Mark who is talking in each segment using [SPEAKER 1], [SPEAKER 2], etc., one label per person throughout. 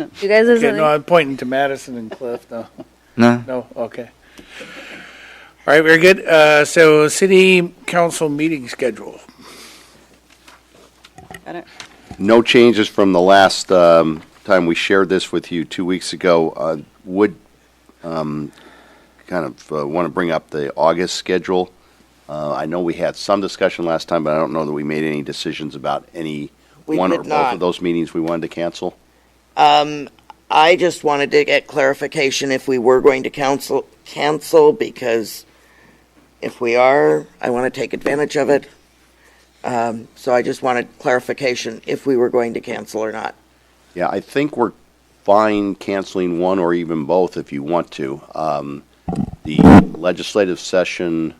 [SPEAKER 1] You guys have
[SPEAKER 2] Okay, no,
[SPEAKER 1] something?
[SPEAKER 2] I'm pointing to Madison and Cliff, no,
[SPEAKER 3] No?
[SPEAKER 2] no, okay. All right, very good. Uh, so city council meeting schedule.
[SPEAKER 1] Got it.
[SPEAKER 4] No changes from the last um, time we shared this with you two weeks ago. Uh, Would um, kind of want to bring up the August schedule. Uh, I know we had some discussion last time, but I don't know that we made any decisions about any
[SPEAKER 5] We
[SPEAKER 4] one or
[SPEAKER 5] did
[SPEAKER 4] both
[SPEAKER 5] not.
[SPEAKER 4] of those meetings we wanted to cancel.
[SPEAKER 5] I just wanted to get clarification if we were going to counsel, cancel, because if we are, I want to take advantage of it. Um, so I just wanted clarification if we were going to cancel or not.
[SPEAKER 4] Yeah, I think we're fine canceling one or even both if you want to. Um, The legislative session,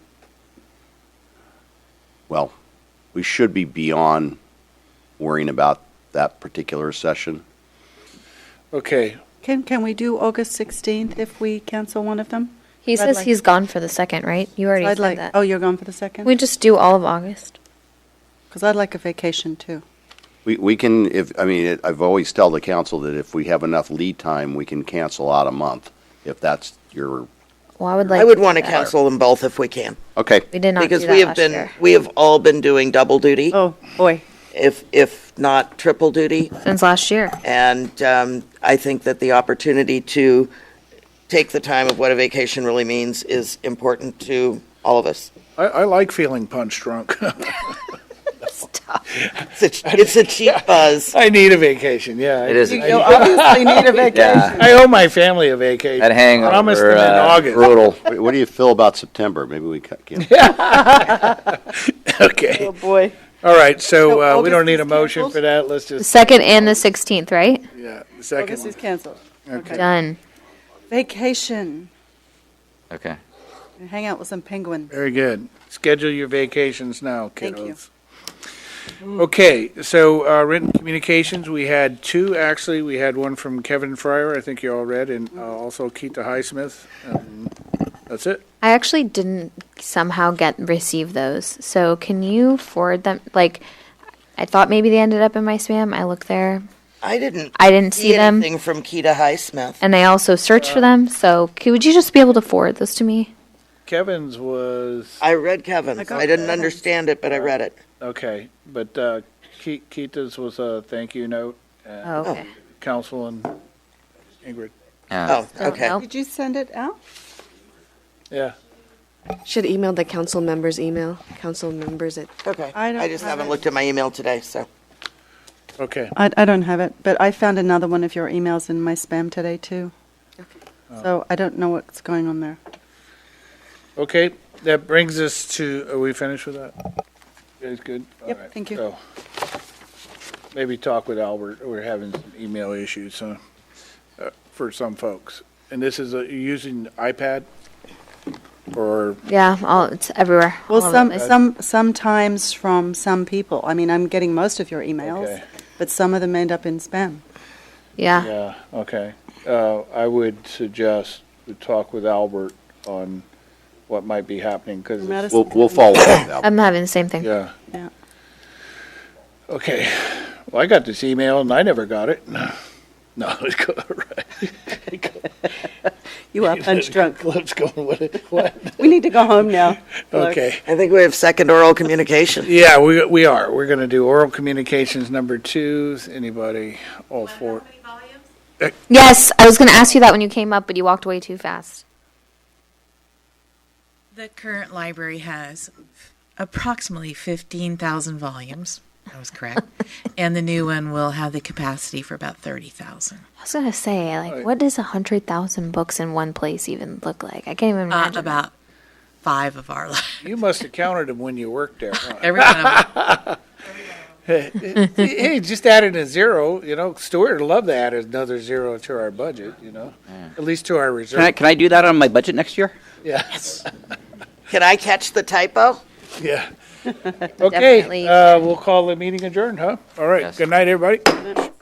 [SPEAKER 4] well, we should be beyond worrying about that particular session.
[SPEAKER 2] Okay,
[SPEAKER 6] Can, can we do August 16th if we cancel one of them?
[SPEAKER 7] He
[SPEAKER 6] I'd
[SPEAKER 7] says
[SPEAKER 6] like-
[SPEAKER 7] he's gone for the second, right? You already
[SPEAKER 6] I'd
[SPEAKER 7] said
[SPEAKER 6] like,
[SPEAKER 7] that.
[SPEAKER 6] oh, you're gone for the
[SPEAKER 7] we
[SPEAKER 6] second?
[SPEAKER 7] just do all of August.
[SPEAKER 6] Because I'd like a vacation, too.
[SPEAKER 4] We, we can, if, I mean, it- I've always tell the council that if we have enough lead time, we can cancel out a month, if that's your,
[SPEAKER 7] Well, I would like.
[SPEAKER 5] I would
[SPEAKER 7] do
[SPEAKER 5] want to
[SPEAKER 7] that.
[SPEAKER 5] cancel them both if we can,
[SPEAKER 4] okay.
[SPEAKER 7] We did not
[SPEAKER 5] because
[SPEAKER 7] do that
[SPEAKER 5] we have
[SPEAKER 7] last
[SPEAKER 5] been,
[SPEAKER 7] year.
[SPEAKER 5] we have all been doing double duty,
[SPEAKER 6] Oh, boy.
[SPEAKER 5] if, if not triple duty.
[SPEAKER 7] since last year.
[SPEAKER 5] And um, I think that the opportunity to take the time of what a vacation really means is important to all of us.
[SPEAKER 2] I, I like feeling punch drunk.
[SPEAKER 5] It's a, it's a cheap buzz.
[SPEAKER 2] I need a vacation, yeah.
[SPEAKER 3] It is a
[SPEAKER 2] I-
[SPEAKER 3] cheap-
[SPEAKER 6] You obviously need a vacation.
[SPEAKER 3] Yeah.
[SPEAKER 2] I owe my family a vacation.
[SPEAKER 3] That hangover,
[SPEAKER 2] Promise them in
[SPEAKER 3] uh,
[SPEAKER 2] August.
[SPEAKER 4] Brutal. What- What do you feel about September? Maybe we ca- can.
[SPEAKER 2] Okay,
[SPEAKER 6] Oh, boy.
[SPEAKER 2] all right, so,
[SPEAKER 6] So
[SPEAKER 2] uh, we
[SPEAKER 6] August
[SPEAKER 2] don't need a
[SPEAKER 6] is
[SPEAKER 2] motion
[SPEAKER 6] canceled?
[SPEAKER 2] for that, let's
[SPEAKER 7] The
[SPEAKER 2] just,
[SPEAKER 7] second and the 16th, right?
[SPEAKER 2] yeah,
[SPEAKER 6] August
[SPEAKER 2] second.
[SPEAKER 6] is canceled. Okay.
[SPEAKER 7] Done.
[SPEAKER 6] Vacation.
[SPEAKER 3] Okay.
[SPEAKER 6] Hang out with some penguins.
[SPEAKER 2] Very good. Schedule your vacations now,
[SPEAKER 6] Thank you.
[SPEAKER 2] kiddos. Okay, so uh, written communications, we had two, actually. We had one from Kevin Fryer, I think you all read, and uh, also Keita Highsmith. Um, That's it.
[SPEAKER 7] I actually didn't somehow get receive those. So can you forward them? Like, I thought maybe they ended up in my spam. I looked there.
[SPEAKER 5] I didn't
[SPEAKER 7] I didn't see them,
[SPEAKER 5] anything from Keita Highsmith.
[SPEAKER 7] and I also searched for them. So c- would you just be able to forward those to me?
[SPEAKER 2] Kevin's was,
[SPEAKER 5] I read Kevin's.
[SPEAKER 6] I
[SPEAKER 5] I,
[SPEAKER 6] got
[SPEAKER 5] didn't
[SPEAKER 6] Kevin's.
[SPEAKER 5] understand it, but I read it.
[SPEAKER 2] okay, but uh, Ke- Keita's was a thank you note, uh,
[SPEAKER 7] Oh, okay.
[SPEAKER 2] council and Ingrid.
[SPEAKER 3] Yeah.
[SPEAKER 5] Oh, okay.
[SPEAKER 7] no.
[SPEAKER 6] Did you send it out?
[SPEAKER 2] Yeah,
[SPEAKER 8] Should email the council members email. Council members at
[SPEAKER 5] Okay.
[SPEAKER 6] I
[SPEAKER 5] I,
[SPEAKER 6] don't
[SPEAKER 5] just
[SPEAKER 6] have
[SPEAKER 5] haven't
[SPEAKER 6] it.
[SPEAKER 5] looked at my email today, so
[SPEAKER 2] okay.
[SPEAKER 6] I, I don't have it, but I found another one of your emails in my spam today, too. So I don't know what's going on there.
[SPEAKER 2] Okay, that brings us to, are we finished with that? You Guys, good?
[SPEAKER 6] Yep,
[SPEAKER 2] All right,
[SPEAKER 6] thank you.
[SPEAKER 2] so Maybe talk with Albert, we're having some email issues, huh, uh, for some folks. And this is, uh, you're using iPad? Or,
[SPEAKER 7] Yeah, all it's everywhere.
[SPEAKER 6] Well,
[SPEAKER 7] all over
[SPEAKER 6] some,
[SPEAKER 7] the place.
[SPEAKER 6] some, sometimes from some people. I mean, I'm getting most of your emails,
[SPEAKER 2] Okay.
[SPEAKER 6] but some of them end up in spam.
[SPEAKER 7] yeah.
[SPEAKER 2] yeah, okay. Uh, I would suggest we talk with Albert on what might be happening, because,
[SPEAKER 6] Madison-
[SPEAKER 4] We'll, we'll follow up with that.
[SPEAKER 7] I'm having the same thing.
[SPEAKER 2] yeah.
[SPEAKER 6] Yeah.
[SPEAKER 2] Okay, well, I got this email and I never got it. No, it's go right.
[SPEAKER 6] You are punch drunk.
[SPEAKER 2] Let's go with it. What?
[SPEAKER 6] We need to go home now. Look.
[SPEAKER 2] Okay.
[SPEAKER 5] I think we have second oral communication.
[SPEAKER 2] Yeah, we, we are. We're going to do oral communications number two. Anybody? All four.
[SPEAKER 7] Yes, I was going to ask you that when you came up, but you walked away too fast.
[SPEAKER 9] The current library has approximately 15,000 volumes. That was correct. and the new one will have the capacity for about 30,000.
[SPEAKER 7] I was gonna say, like,
[SPEAKER 2] Right.
[SPEAKER 7] what does a hundred thousand books in one place even look like? I can't even
[SPEAKER 9] Uh,
[SPEAKER 7] imagine.
[SPEAKER 9] about five of our libraries.
[SPEAKER 2] You must have counted them when you worked there. huh?
[SPEAKER 9] Every one of them.
[SPEAKER 2] hey, just added a zero. You know, Stuart would love to add another zero to our budget. You know, at least to our reserve.
[SPEAKER 3] Can I, can I do that on my budget next year?
[SPEAKER 2] yes.
[SPEAKER 5] Can I catch the typo?
[SPEAKER 2] Yeah. Okay.
[SPEAKER 7] Definitely.
[SPEAKER 2] Uh, we'll call the meeting adjourned, huh? All right.
[SPEAKER 3] Yes.
[SPEAKER 2] Good night, everybody.